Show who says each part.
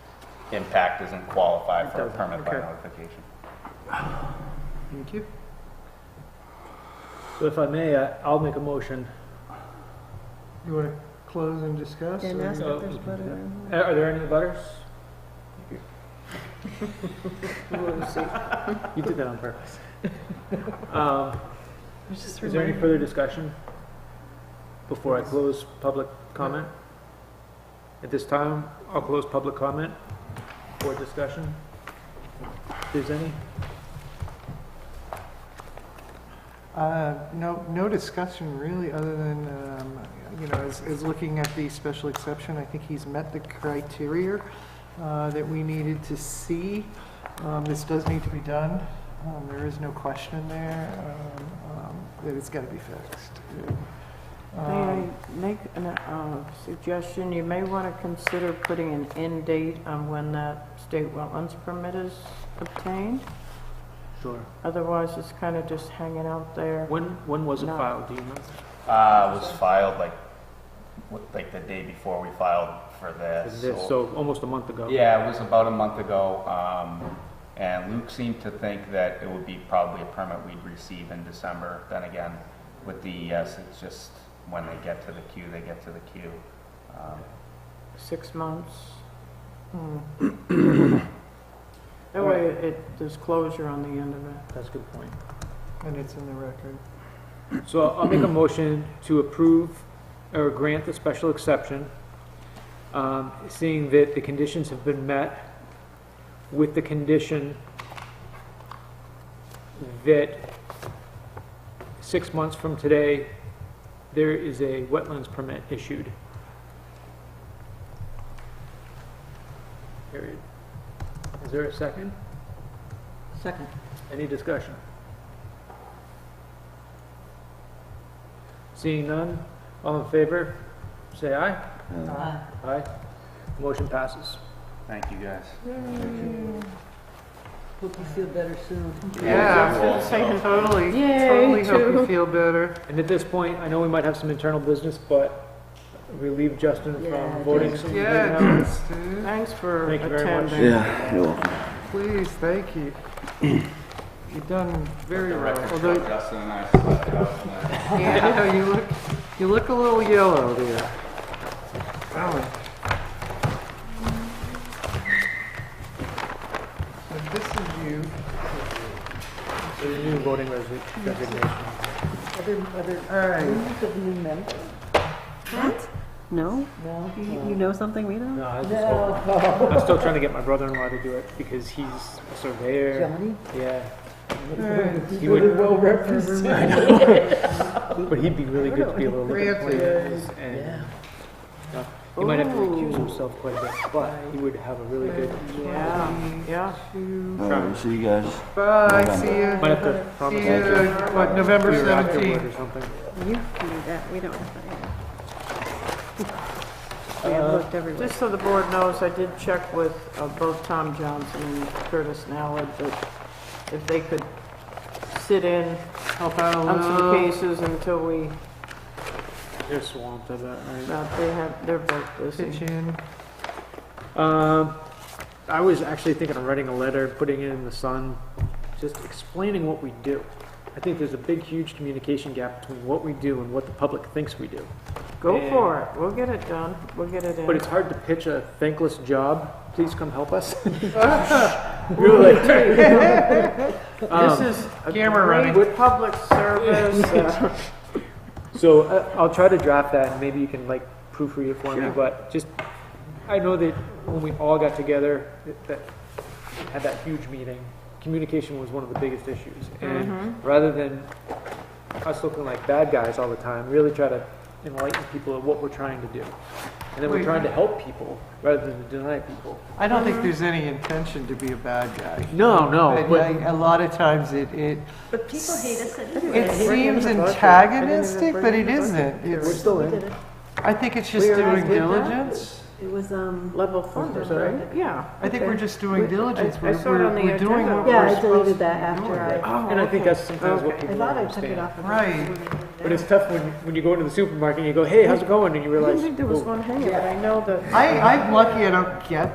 Speaker 1: impact doesn't qualify for a
Speaker 2: doesn't,
Speaker 1: permit by
Speaker 2: okay.
Speaker 1: notification.
Speaker 2: Thank you. So if I may, I- I'll make a motion.
Speaker 3: You want to close and discuss?
Speaker 4: And
Speaker 3: or-
Speaker 4: ask if there's butter in
Speaker 2: Uh, Are there any butters?
Speaker 4: it.
Speaker 2: You did that on purpose. Um,
Speaker 4: Just
Speaker 2: Is there any
Speaker 4: reminded.
Speaker 2: further discussion before I close public comment? At this time, I'll close public comment for discussion. If there's any?
Speaker 3: Uh, No, no discussion really, other than, um, you know, is, is looking at the special exception. I think he's met the criteria uh, that we needed to see. Um, This does need to be done. Um, There is no question there um, um, that it's got to be fixed.
Speaker 4: May
Speaker 2: Uh,
Speaker 4: I
Speaker 3: Um,
Speaker 4: make a suggestion? You may want to consider putting an end date on when that state wetlands permit is obtained.
Speaker 2: Sure.
Speaker 4: Otherwise, it's kind of just hanging out there.
Speaker 2: When, when was it
Speaker 4: No.
Speaker 2: filed, do you know?
Speaker 1: Uh, was filed like, what- like the day before we filed for this.
Speaker 2: This-
Speaker 1: so-
Speaker 2: So almost a month ago.
Speaker 1: Yeah, it was about a month ago, um, and Luke seemed to think that it would be probably a permit we'd receive in December. Then again, with DES, it's just when they get to the queue, they get to the queue. Um,
Speaker 4: Six months.
Speaker 3: hmm.
Speaker 4: That way, it, there's closure on the end of it.
Speaker 2: That's a good point.
Speaker 3: And it's in the record.
Speaker 2: So I'll make a motion to approve or grant the special exception, um, seeing that the conditions have been met with the condition that six months from today, there is a wetlands permit issued. Period. Is there a second?
Speaker 4: Second.
Speaker 2: Any discussion? Seeing none, all in favor, say aye.
Speaker 4: Uh,
Speaker 2: Aye. Motion passes.
Speaker 1: Thank you, guys.
Speaker 4: Hope you feel better soon.
Speaker 3: Yeah,
Speaker 1: I was gonna say,
Speaker 3: totally.
Speaker 4: Yay,
Speaker 3: Totally hope
Speaker 4: too.
Speaker 3: you feel better.
Speaker 2: And at this point, I know we might have some internal business, but relieve Justin
Speaker 4: Yeah,
Speaker 2: from voting.
Speaker 4: thanks.
Speaker 2: some-
Speaker 3: Yeah, thanks, dude.
Speaker 4: Thanks for
Speaker 2: Thank you very much.
Speaker 4: attending.
Speaker 5: Yeah, you're welcome.
Speaker 3: Please, thank you. You've done very
Speaker 1: The
Speaker 3: well.
Speaker 1: record
Speaker 3: Although,
Speaker 1: show, Justin and I slept out tonight.
Speaker 3: yeah, you look, you look a little yellow there. Wow. So this is you.
Speaker 2: The new voting resi- designation.
Speaker 3: All right.
Speaker 6: No? No. You you know something we don't?
Speaker 2: No, I was just hoping- I'm still trying to get my brother-in-law to do it because he's a surveyor. Yeah. He would well represented. But he'd be really good to be able to look at the plans and, uh, he might have to recuse himself quite a bit, but he would have a really good,
Speaker 4: Yeah, yeah.
Speaker 5: All right, see you guys.
Speaker 3: Bye, see you.
Speaker 2: might have to
Speaker 3: See
Speaker 2: promise.
Speaker 3: you, what, November
Speaker 2: we were afterward
Speaker 3: 17th?
Speaker 2: Or something.
Speaker 6: You can do that, we don't have that yet. We have
Speaker 2: Uh,
Speaker 6: looked everywhere.
Speaker 4: Just so the board knows, I did check with uh, both Tom Johnson and Curtis Nallard that if they could sit in
Speaker 3: Help out a
Speaker 4: on some
Speaker 3: little.
Speaker 4: cases until we,
Speaker 2: They're swamped, I bet, right?
Speaker 4: uh, they have, they're both
Speaker 3: Pitch
Speaker 4: busy.
Speaker 3: in.
Speaker 2: Um, I was actually thinking of writing a letter, putting it in the sun, just explaining what we do. I think there's a big, huge communication gap between what we do and what the public thinks we do.
Speaker 4: Go for it, we'll get it done, we'll get it in.
Speaker 2: But it's hard to pitch a thankless job. Please come help us. You're like, Um,
Speaker 4: This is a
Speaker 3: Camera running.
Speaker 4: great public service. uh,
Speaker 2: So uh, I'll try to draft that, and maybe you can like proofread it for me. But just, I know that when we all got together, that, that had that huge meeting, communication was one of the biggest issues. And
Speaker 4: mm-hmm.
Speaker 2: rather than us looking like bad guys all the time, really try to enlighten people of what we're trying to do. And then we're
Speaker 3: Wait.
Speaker 2: trying to help people rather than deny people.
Speaker 3: I don't think there's any intention to be a bad guy.
Speaker 2: No, no,
Speaker 3: But
Speaker 2: but
Speaker 3: like, a lot of times it, it,
Speaker 6: But people hate us
Speaker 3: it seems antagonistic, but it isn't.
Speaker 2: we're
Speaker 3: It's,
Speaker 2: still in.
Speaker 3: I think it's just
Speaker 4: Where I
Speaker 3: doing
Speaker 4: did that?
Speaker 3: diligence.
Speaker 6: It was, um,
Speaker 4: Level funded,
Speaker 2: sorry?
Speaker 4: right? Yeah.
Speaker 3: I think we're just doing diligence.
Speaker 4: I- I
Speaker 3: We're,
Speaker 4: saw it on
Speaker 3: we're,
Speaker 4: the
Speaker 3: we're doing
Speaker 4: agenda. Oh,
Speaker 3: what
Speaker 6: yeah,
Speaker 3: we're
Speaker 6: I deleted
Speaker 3: supposed
Speaker 6: that
Speaker 3: to be
Speaker 6: after
Speaker 3: doing. Oh,
Speaker 6: I,
Speaker 2: And I think that's sometimes what
Speaker 4: Okay.
Speaker 2: people
Speaker 6: Oh, I
Speaker 2: don't
Speaker 6: thought I took it
Speaker 2: understand.
Speaker 6: off. of the-
Speaker 3: Right.
Speaker 2: But it's tough when, when you go into the supermarket and you go, hey, how's it going? And you
Speaker 4: I
Speaker 2: realize,
Speaker 4: didn't think there was
Speaker 2: "Oh,
Speaker 4: one hanging, but I know that
Speaker 3: I, I'm lucky I don't get